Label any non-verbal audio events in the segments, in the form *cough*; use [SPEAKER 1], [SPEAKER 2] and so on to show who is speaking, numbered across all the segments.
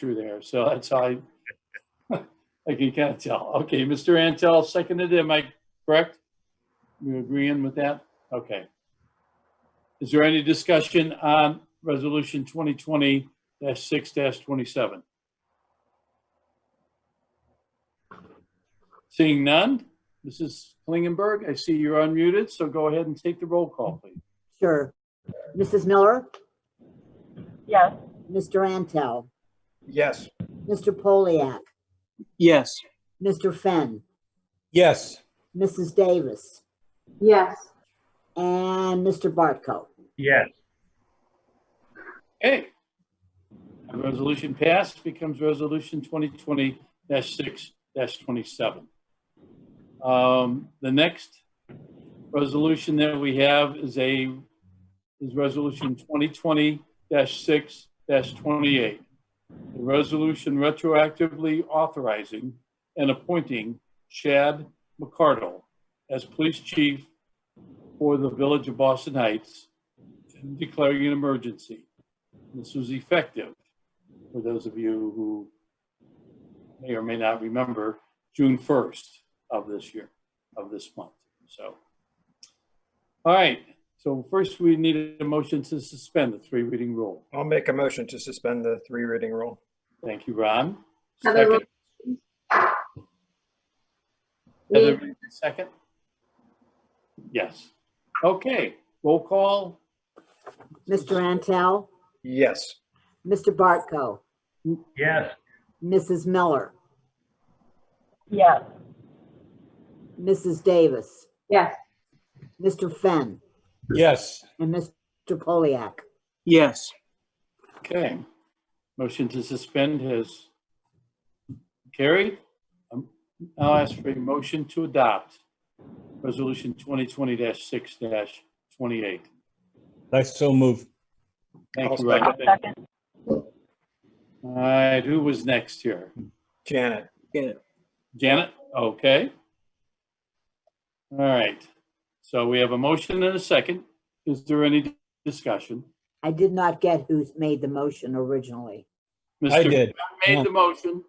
[SPEAKER 1] through there, so that's how I, I *laughs* can kind of tell. Okay, Mr. Antel seconded, it, am I correct? You agreeing with that? Okay. Is there any discussion on Resolution 2020-6-27? Seeing none, Mrs. Klingenberg, I see you're unmuted, so go ahead and take the roll call, please.
[SPEAKER 2] Sure. Mrs. Miller,
[SPEAKER 3] yes,
[SPEAKER 2] Mr. Antel,
[SPEAKER 4] Yes.
[SPEAKER 2] Mr. Poliak,
[SPEAKER 5] Yes.
[SPEAKER 2] Mr. Fenn,
[SPEAKER 4] Yes.
[SPEAKER 2] Mrs. Davis,
[SPEAKER 6] yes,
[SPEAKER 2] and Mr. Bartko.
[SPEAKER 4] Yes.
[SPEAKER 1] Okay. The Resolution passed becomes Resolution 2020-6-27. Um, The next resolution that we have is a, is Resolution 2020-6-28. A resolution retroactively authorizing and appointing Chad McCardle as police chief for the Village of Boston Heights and declaring an emergency. This was effective, for those of you who may or may not remember, June 1st of this year, of this month, so. All right, so first we need a motion to suspend the three reading rule.
[SPEAKER 4] I'll make a motion to suspend the three reading rule.
[SPEAKER 1] Thank you, Ron.
[SPEAKER 6] Heather
[SPEAKER 1] Second. Heather,
[SPEAKER 6] Me.
[SPEAKER 1] second? Yes. Okay, roll call,
[SPEAKER 2] Mr. Antel,
[SPEAKER 4] Yes.
[SPEAKER 2] Mr. Bartko,
[SPEAKER 4] Yes.
[SPEAKER 2] Mrs. Miller,
[SPEAKER 3] yes,
[SPEAKER 2] Mrs. Davis,
[SPEAKER 6] yes,
[SPEAKER 2] Mr. Fenn,
[SPEAKER 4] Yes.
[SPEAKER 2] and Mr. Poliak.
[SPEAKER 5] Yes.
[SPEAKER 1] okay. Motion to suspend has carried. Um, I'll ask for a motion to adopt Resolution 2020-6-28.
[SPEAKER 7] I so move.
[SPEAKER 4] I'll
[SPEAKER 1] Thank you,
[SPEAKER 4] second.
[SPEAKER 1] Ron.
[SPEAKER 3] I'll second,
[SPEAKER 1] All right, who was next here?
[SPEAKER 4] Janet.
[SPEAKER 1] Janet? Okay. All right, so we have a motion and a second. Is there any discussion?
[SPEAKER 2] I did not get who made the motion originally.
[SPEAKER 7] I
[SPEAKER 1] Mr.
[SPEAKER 7] did.
[SPEAKER 1] Made the motion.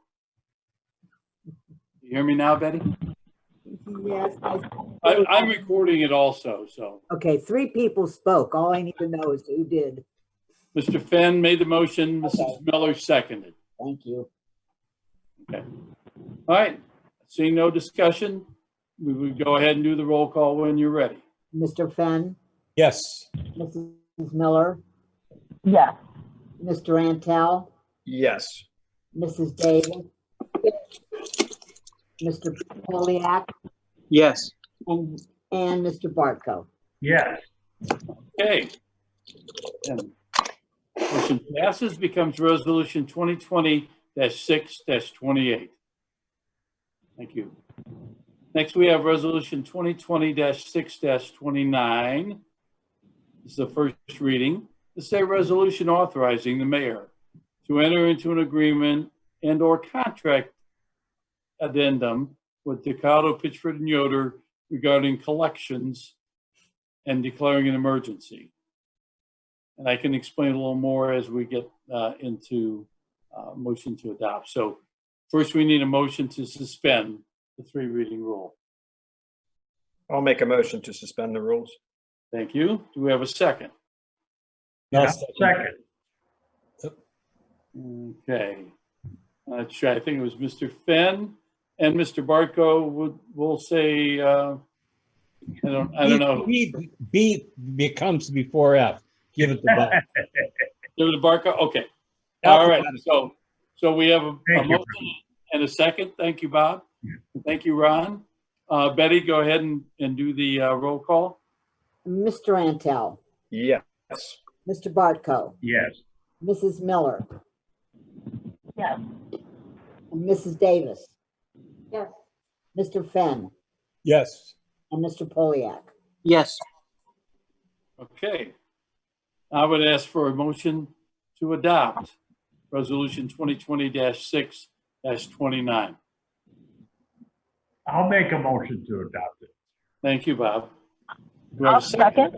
[SPEAKER 1] You hear me now, Betty?
[SPEAKER 2] Yes.
[SPEAKER 1] I, I'm recording it also, so.
[SPEAKER 2] Okay, three people spoke. All I need to know is who did.
[SPEAKER 1] Mr. Fenn made the motion, Mrs. Miller seconded.
[SPEAKER 2] Thank you.
[SPEAKER 1] All right, seeing no discussion, we will go ahead and do the roll call when you're ready.
[SPEAKER 2] Mr. Fenn,
[SPEAKER 7] Yes.
[SPEAKER 2] Mrs. Miller,
[SPEAKER 3] yes,
[SPEAKER 2] Mr. Antel,
[SPEAKER 4] Yes.
[SPEAKER 2] Mrs. Davis, Mr. Poliak,
[SPEAKER 5] Yes.
[SPEAKER 2] and, and Mr. Bartko.
[SPEAKER 4] Yes.
[SPEAKER 1] Okay. And Motion passes, becomes resolution 2020-6-28. Thank you. Next, we have resolution 2020-6-29. This is the first reading. This is a resolution authorizing the mayor to enter into an agreement and/or contract addendum with Decado, Pittsford, and Yoder regarding collections and declaring an emergency. And I can explain a little more as we get uh, into uh, motion to adopt. So first, we need a motion to suspend the three reading rule.
[SPEAKER 4] I'll make a motion to suspend the rules.
[SPEAKER 1] Thank you. Do we have a second?
[SPEAKER 7] I'll
[SPEAKER 4] Second.
[SPEAKER 1] Okay. Let's try. I think it was Mr. Fenn and Mr. Barco would, will say, uh, I don't, I don't know.
[SPEAKER 7] B B becomes before F. Give it the button.
[SPEAKER 1] There was a Barco? Okay. All right, so, so we have a a
[SPEAKER 4] Thank you,
[SPEAKER 1] motion and a second. Thank you, Bob. Thank you, Ron. Uh, Betty, go ahead and, and do the uh, roll call.
[SPEAKER 2] Mr. Antel,
[SPEAKER 4] Yes.
[SPEAKER 2] Mr. Bartko,
[SPEAKER 4] Yes.
[SPEAKER 2] Mrs. Miller,
[SPEAKER 3] yes,
[SPEAKER 2] and Mrs. Davis,
[SPEAKER 6] yes,
[SPEAKER 2] Mr. Fenn,
[SPEAKER 7] Yes.
[SPEAKER 2] and Mr. Poliak.
[SPEAKER 5] Yes.
[SPEAKER 1] Okay. I would ask for a motion to adopt Resolution 2020-6-29.
[SPEAKER 8] I'll make a motion to adopt it.
[SPEAKER 1] Thank you, Bob. Do I
[SPEAKER 3] I'll
[SPEAKER 1] have a
[SPEAKER 3] second.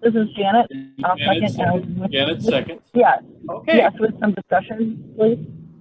[SPEAKER 3] This is Janet, I'll
[SPEAKER 1] Janet,
[SPEAKER 3] second, and with-
[SPEAKER 1] Janet, second.
[SPEAKER 3] yes,
[SPEAKER 1] Okay,
[SPEAKER 3] yes, with some discussion, please,